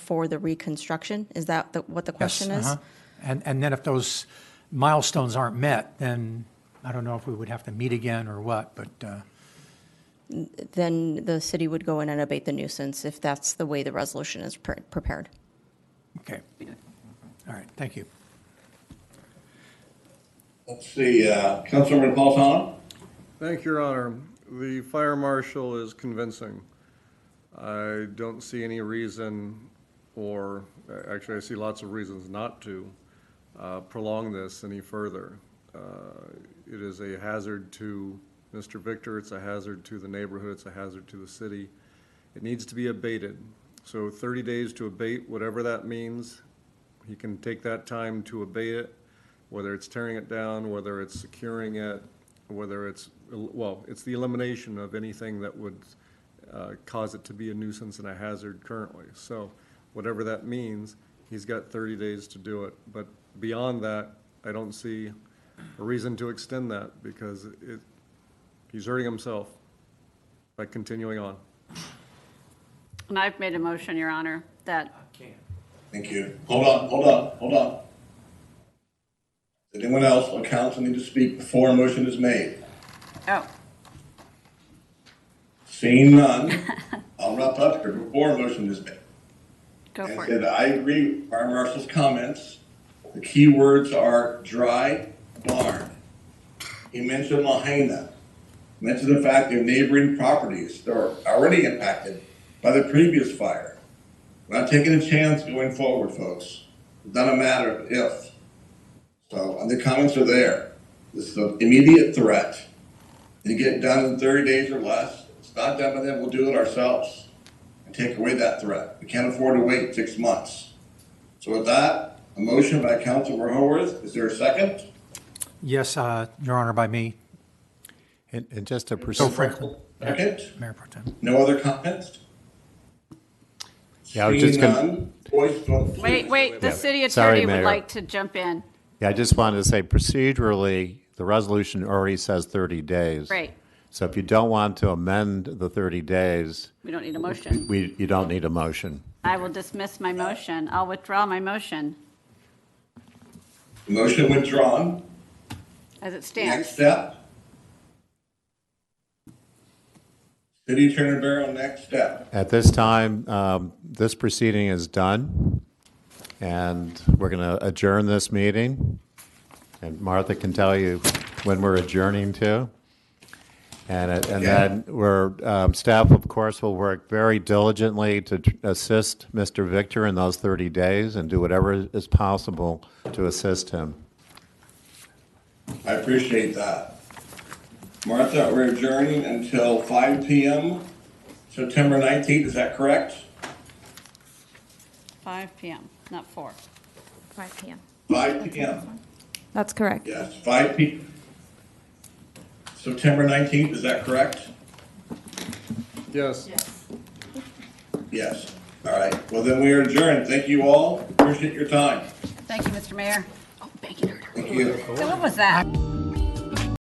for the reconstruction? Is that the, what the Yes, question is? uh-huh. And, and then if those milestones aren't met, then I don't know if we would have to meet again or what, but, uh, Then the city would go in and abate the nuisance if that's the way the resolution is pre- prepared. okay. All right, thank you. Let's see, uh, Councilmember Napolitano? Thank you, Your Honor. The fire marshal is convincing. I don't see any reason, or, actually, I see lots of reasons not to uh, prolong this any further. Uh, It is a hazard to Mr. Victor, it's a hazard to the neighborhood, it's a hazard to the city. It needs to be abated. So 30 days to abate, whatever that means, he can take that time to abate it, whether it's tearing it down, whether it's securing it, whether it's, well, it's the elimination of anything that would uh, cause it to be a nuisance and a hazard currently. So whatever that means, he's got 30 days to do it. But beyond that, I don't see a reason to extend that because it, he's hurting himself by continuing on. And I've made a motion, Your Honor, that, Thank you. Hold on, hold on, hold on. Does anyone else on council need to speak before a motion is made? oh, Seeing none, I'll wrap up here before a motion is made. go And for said, it. I agree with Fire Marshal's comments. The key words are dry barn. He mentioned Lahaina, mentioned the fact that neighboring properties that are already impacted by the previous fire. We're not taking a chance going forward, folks. It's not a matter of if. So, and the comments are there. This is an immediate threat. You get it done in thirty days or less. If it's not done by then, we'll do it ourselves and take away that threat. We can't afford to wait six months. So with that, a motion by Councilor Haworth, is there a second? Yes, uh, Your Honor, by me, And, and just to Joe pursue, Franklin, Second, Mayor Pro Tem. no other comments? Yeah, I was just Seeing gonna- none, Voice vote. please. Wait, wait, the city Sorry, attorney would Mayor. like to jump in. yeah, I just wanted to say procedurally, the resolution already says 30 days. Right. So if you don't want to amend the 30 days, We don't need a motion. we, you don't need a motion. I will dismiss my motion. I'll withdraw my motion Motion withdrawn. as it Next stands. step. City Attorney Barrow, next step. At this time, um, this proceeding is done, and we're going to adjourn this meeting. And Martha can tell you when we're adjourning to. And, it- and then we're, um, staff, of course, will work very diligently to tr- assist Mr. Victor in those 30 days and do whatever is possible to assist him. I appreciate that. Martha, we're adjourning until five PM, September nineteenth, is that correct? 5 PM, not 4. 5 PM. Five PM. That's correct. Yes, five P. September nineteenth, is that correct? Yes. Yes. All right, well then we are adjourned. Thank you all. Appreciate your time. Thank you, Mr. Mayor. Oh, thank you. Thank you. So what was that?